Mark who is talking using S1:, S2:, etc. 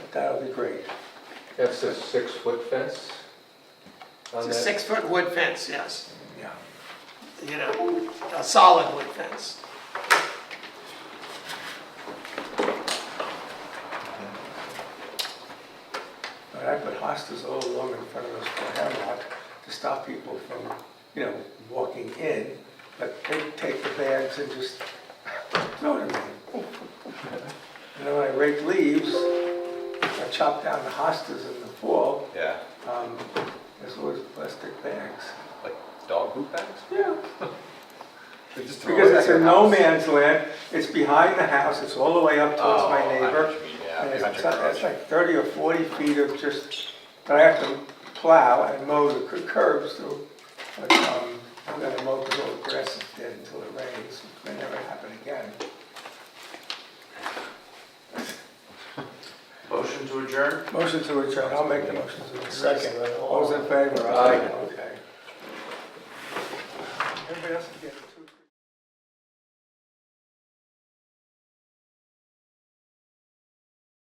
S1: That would be great.
S2: That's a six-foot fence? on
S3: It's a
S2: that?
S3: six-foot wood fence, yes,
S1: Yeah.
S3: you know, a solid wood fence.
S1: But I put hostas all along in front of us for Hemlock to stop people from, you know, walking in, but they take the bags and just throw them in. And then when I rake leaves, I chop down the hostas in the fall,
S4: Yeah,
S1: um, there's always plastic bags.
S4: like dog poop bags?
S1: Yeah.
S4: They just throw
S1: Because
S4: it at
S1: it's
S4: your
S1: in no
S4: house.
S1: man's land, it's behind the house, it's all the way up towards
S4: Oh,
S1: my
S4: I know
S1: neighbor.
S4: what you mean,
S1: And
S4: Yeah,
S1: It's
S4: behind
S1: it's
S4: your garage.
S1: like 30 or 40 feet of just, but I have to plow and mow the cur- curbs, so but, um, I'm gonna mow the little grass is dead until it rains, it may never happen again.
S5: Motion to adjourn?
S1: Motion to adjourn, I'll make the motion to adjourn. Second. All those in favor?
S2: Aye.
S1: Okay. Everybody else is getting.